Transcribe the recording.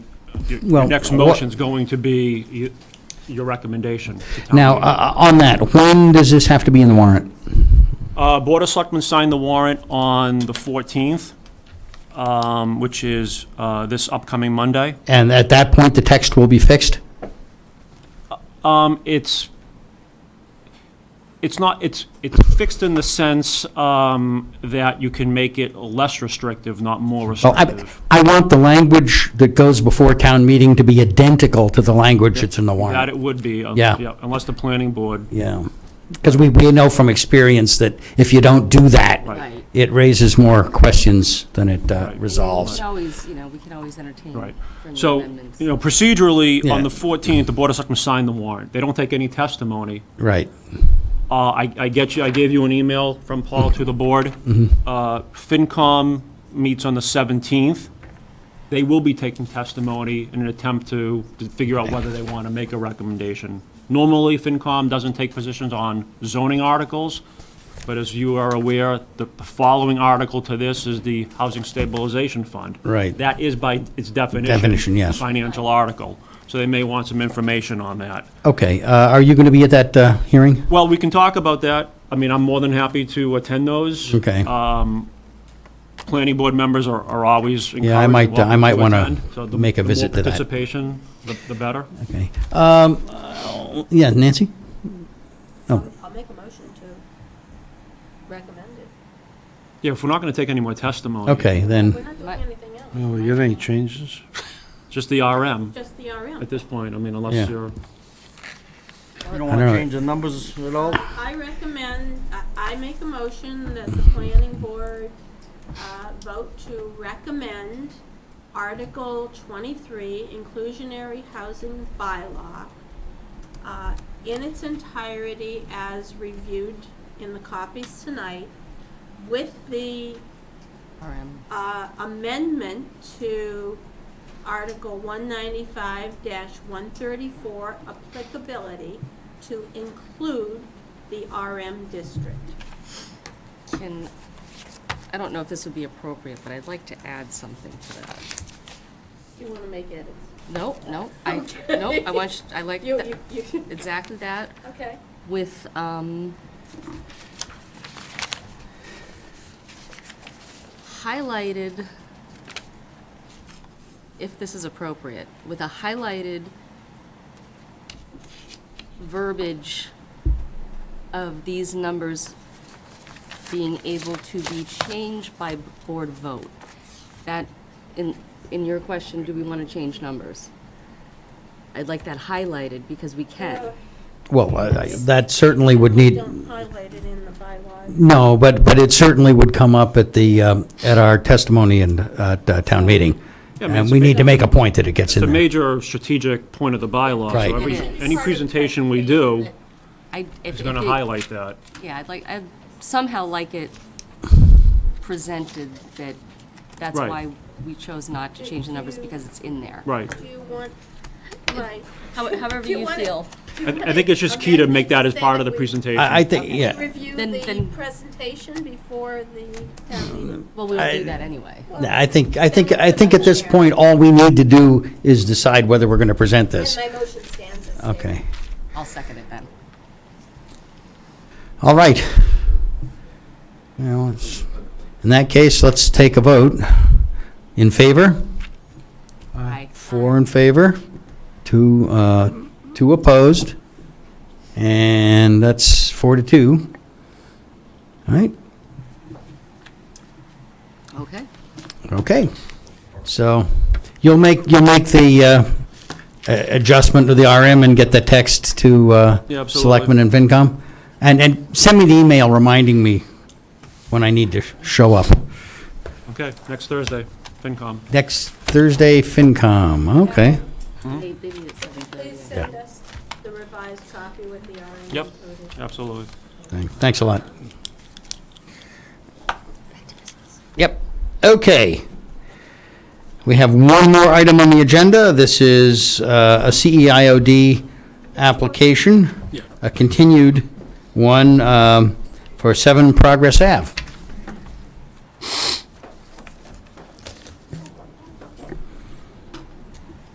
your Well, your next wha- motion's going to be y- your recommendation. to town Now, meeting. uh, on that, when does this have to be in the warrant? Uh, Board of Selectmen signed the warrant on the 14th, um, which is uh, this upcoming Monday. And at that point, the text will be fixed? Um, It's, it's not, it's, it's fixed in the sense um, that you can make it less restrictive, not more So Oh, I, restrictive. I want the language that goes before town meeting to be identical to the language that's in the That warrant. it would be, uh, Yeah. yeah, unless the planning board, Yeah. Because we, we know from experience that if you don't do that, right, Right. it raises more questions than it uh, Right. We resolves. can always, you know, we can always entertain right. friendly So, amendments. you know, procedurally, on Yeah. the 14th, the Board of Selectmen signed the warrant. They don't take any testimony. Right. Uh, I, I get you, I gave you an email from Paul to the board. Mm-hmm. Uh, FinCom meets on the 17th. They will be taking testimony in an attempt to, to figure out whether they want to make a recommendation. Normally, FinCom doesn't take positions on zoning articles, but as you are aware, the the following article to this is the Housing Stabilization Fund. Right. That is by its definition. Definition, yes. a Financial article, so they may want some information on that. Okay, uh, are you going to be at that uh, hearing? Well, we can talk about that. I mean, I'm more than happy to attend those. Okay. Planning board members are, are always encouraged. Yeah, I might, welcome I might wanna attend. So the- make a visit to that. The more participation, the, the better. Okay. Um, Yeah, Nancy? I'll make a motion to recommend it. Yeah, if we're not gonna take any more testimony. Okay, We're then, not doing Right. anything else. Well, you got any changes? Just the RM Just the at RM. this point, I mean, Yeah. unless you're, You don't I want to know. change the numbers at all? I recommend, I- I make a motion that the planning board uh, vote to recommend Article 23 inclusionary housing bylaw uh, in its entirety as reviewed in the copies tonight with the RM. uh, amendment to Article 195-134 applicability to include the RM district. Can, I don't know if this would be appropriate, but I'd like to add something to that. You want to make edits? No, no, I, no, I want, you- I like You, that- you, you, exactly that okay. with, um, highlighted, if this is appropriate, with a highlighted verbiage of these numbers being able to be changed by board vote. That, in, in your question, do we want to change numbers? I'd like that highlighted because we can. well, I- I- that certainly would need, Don't highlight it in the bylaws. no, but, but it certainly would come up at the, um, at our testimony and uh, at uh, town meeting. I mean, And it's we a need to make a point that it gets it's a in there. major strategic point of the bylaw. Right. So every, It is. any presentation we do I, if, is gonna if it- highlight that. Yeah, I'd like, I'd somehow like it presented that, that's Right. why we chose not to change the numbers because it's in there. Right. Do you want, right. How- However you you want it- feel. I, I think it's just key to make that as part of the presentation. I, I think, yeah, Review Then- the then- presentation before the town meeting. Well, we don't I- do that anyway. I think, I think, I think at this point, all we need to do is decide whether we're going to present this. My motion stands as. Okay, I'll second it then. all right. Now, let's- in that case, let's take a vote. In favor? Aye. Four in favor, two, uh, two opposed, and that's four to two. All right, Okay. okay. So you'll make, you'll make the uh, a- adjustment to the RM and get the text to Yeah, uh, absolutely. Selectmen and FinCom? And, and send me the email reminding me when I need to show up. Okay, next Thursday, FinCom. Next Thursday, FinCom, okay. They, they meet at seven thirty. Please send us the revised copy with the RNA Yep. included. Absolutely. Thanks a lot. Yep, okay. We have one more item on the agenda. This is uh, a CEIOD application, a continued one um, for 7 Progress Ave.